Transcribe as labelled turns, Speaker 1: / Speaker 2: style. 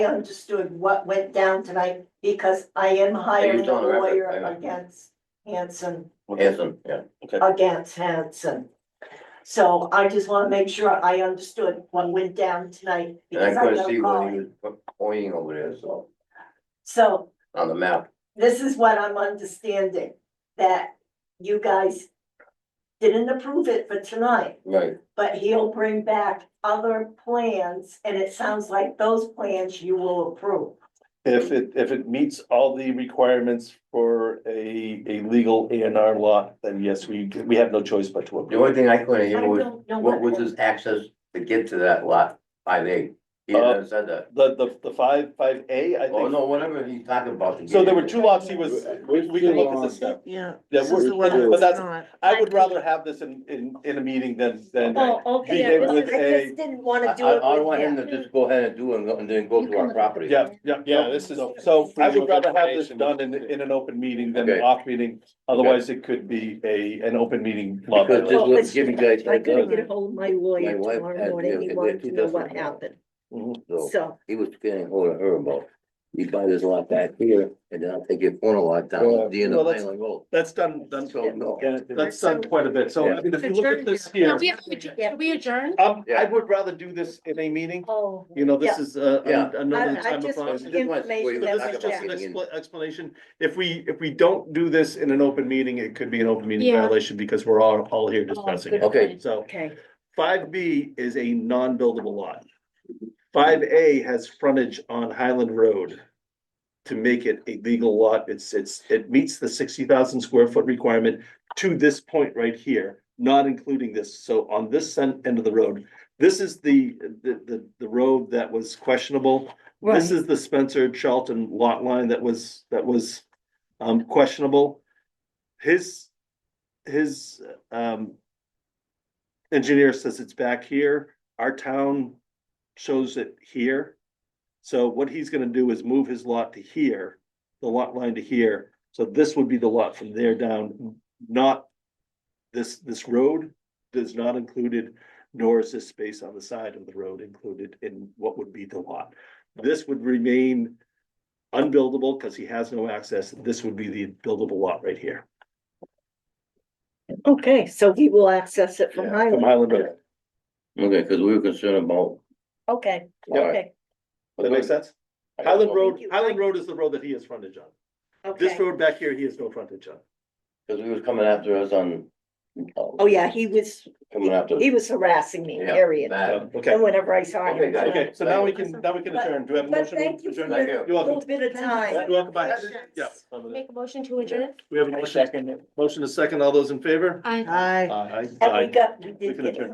Speaker 1: understood what went down tonight because I am hiring a
Speaker 2: talking about the-
Speaker 1: lawyer
Speaker 2: hang on.
Speaker 1: against Hanson,
Speaker 2: Hanson, yeah.
Speaker 1: Uh, against Hanson. So I just wanna make sure I understood what went down tonight.
Speaker 2: And I
Speaker 1: because
Speaker 2: couldn't
Speaker 1: got a
Speaker 2: see
Speaker 1: call.
Speaker 2: what he was pointing over there, so,
Speaker 1: So
Speaker 2: on the map.
Speaker 1: this is what I'm understanding, that you guys didn't approve it for tonight,
Speaker 2: Right.
Speaker 1: but he'll bring back other plans, and it sounds like those plans you will approve.
Speaker 3: If it, if it meets all the requirements for a, a legal A and R lot, then yes, we, we have no choice but to
Speaker 2: The
Speaker 3: approve.
Speaker 2: only thing I couldn't
Speaker 1: I
Speaker 2: hear was,
Speaker 1: don't know
Speaker 2: what was his access to get to that lot, five A? He never said that.
Speaker 3: The, the, the five, five A, Uh, I
Speaker 2: Oh,
Speaker 3: think,
Speaker 2: no, whatever he's talking about. to
Speaker 3: so
Speaker 2: get
Speaker 3: there were
Speaker 2: in.
Speaker 3: two lots he was, we, we can look at this stuff.
Speaker 4: Yeah.
Speaker 3: Yeah,
Speaker 4: This is the one
Speaker 3: we're- but that's,
Speaker 4: that's not.
Speaker 3: I would rather have this in, in, in a meeting than, than,
Speaker 1: Oh,
Speaker 3: Be
Speaker 1: okay,
Speaker 3: there
Speaker 1: I
Speaker 3: with
Speaker 1: just, I
Speaker 3: a-
Speaker 1: just didn't
Speaker 2: I,
Speaker 1: wanna do
Speaker 2: I
Speaker 1: it
Speaker 2: I
Speaker 1: with
Speaker 2: want him
Speaker 1: him.
Speaker 2: to just go ahead and do it and then go
Speaker 4: You
Speaker 2: to
Speaker 4: can
Speaker 2: our
Speaker 4: look at the
Speaker 2: property.
Speaker 3: yeah, yeah.
Speaker 5: Yeah,
Speaker 3: no,
Speaker 5: this is-
Speaker 3: no. So I would rather have this
Speaker 5: Information.
Speaker 3: done in, in an open meeting than
Speaker 2: Okay.
Speaker 3: an off meeting, otherwise it could be a, an open meeting. law
Speaker 2: Because
Speaker 3: violation.
Speaker 2: just let, give you guys.
Speaker 1: I gotta
Speaker 2: that
Speaker 1: get ahold of my lawyer
Speaker 2: My wife
Speaker 1: tomorrow
Speaker 2: had- yeah,
Speaker 1: morning, he
Speaker 2: yeah,
Speaker 1: wanted
Speaker 2: two
Speaker 1: to know
Speaker 2: dozen.
Speaker 1: what happened,
Speaker 4: Oh.
Speaker 3: Mhm.
Speaker 2: So
Speaker 1: so.
Speaker 2: he was getting hold of her about, you buy this lot back here and then I'll take your corner lot down
Speaker 3: Yeah.
Speaker 2: at the end
Speaker 3: Well,
Speaker 2: of
Speaker 3: that's-
Speaker 2: Island Road.
Speaker 3: That's done, done,
Speaker 2: So, no.
Speaker 3: yeah, that's done quite a bit, so I mean, if you look at this
Speaker 4: Yeah,
Speaker 3: here.
Speaker 4: we have to adjourn- Can we adjourn?
Speaker 3: Um,
Speaker 2: Yeah.
Speaker 3: I would rather do this in a meeting,
Speaker 1: Oh.
Speaker 3: you know, this
Speaker 1: Yeah.
Speaker 3: is, uh,
Speaker 2: Yeah.
Speaker 3: an- another
Speaker 1: I- I
Speaker 3: time of.
Speaker 1: just-
Speaker 3: us.
Speaker 2: Just want-
Speaker 1: Information that
Speaker 2: wait,
Speaker 3: This
Speaker 2: talk
Speaker 1: was
Speaker 3: is
Speaker 2: about
Speaker 3: just an
Speaker 1: shared.
Speaker 2: getting in.
Speaker 3: expla- explanation, if we, if we don't do this in an open meeting, it could be an open meeting
Speaker 4: Yeah.
Speaker 3: violation, because we're all, all here discussing it.
Speaker 2: Okay.
Speaker 3: So
Speaker 1: Okay,
Speaker 3: five B is a non-buildable lot. Five A has frontage on Highland Road. To make it a legal lot, it's, it's, it meets the sixty thousand square foot requirement to this point right here, not including this. So on this sen- end of the road, this is the, the, the, the road that was questionable. This is the Spencer Charlton lot line that was, that was, um, questionable. His, his, um, engineer says it's back here, our town shows it here. So what he's gonna do is move his lot to here, the lot line to here, so this would be the lot from there down, not. This, this road does not included, nor is this space on the side of the road included in what would be the lot. This would remain unbuildable, cause he has no access, this would be the buildable lot right here.
Speaker 1: okay, so he will access it from
Speaker 3: From
Speaker 1: Highland,
Speaker 3: Highland Road,
Speaker 2: Okay, cause we were concerned about.
Speaker 1: okay,
Speaker 2: Yeah.
Speaker 1: okay,
Speaker 3: that makes sense?
Speaker 2: I don't
Speaker 3: Highland
Speaker 2: know.
Speaker 3: Road,
Speaker 1: Thank you.
Speaker 3: Highland Road is the road that he has frontage on. This
Speaker 1: okay.
Speaker 3: road back here, he has no frontage on.
Speaker 2: Cause he was coming after us on. uh,
Speaker 1: Oh, yeah, he was,
Speaker 2: Coming after.
Speaker 1: he was harassing me,
Speaker 2: Yeah,
Speaker 1: period,
Speaker 2: bad.
Speaker 1: and
Speaker 3: Okay,
Speaker 1: whenever I saw
Speaker 2: Okay,
Speaker 1: him.
Speaker 2: guys.
Speaker 3: okay, so now we can, now we can adjourn. Do we have a
Speaker 1: But
Speaker 3: motion?
Speaker 1: thank
Speaker 3: to
Speaker 1: you for
Speaker 3: adjourn?
Speaker 2: Thank you.
Speaker 1: your
Speaker 3: You're welcome.
Speaker 1: little bit of time.
Speaker 3: You're welcome back. Yeah.
Speaker 4: Make a motion to adjourn?
Speaker 3: We have a motion, motion to second. All those in favor?
Speaker 4: Aye.
Speaker 1: Hi.
Speaker 3: Aye.
Speaker 1: And we got, we
Speaker 3: We
Speaker 1: did get
Speaker 3: can
Speaker 1: it.
Speaker 3: adjourn.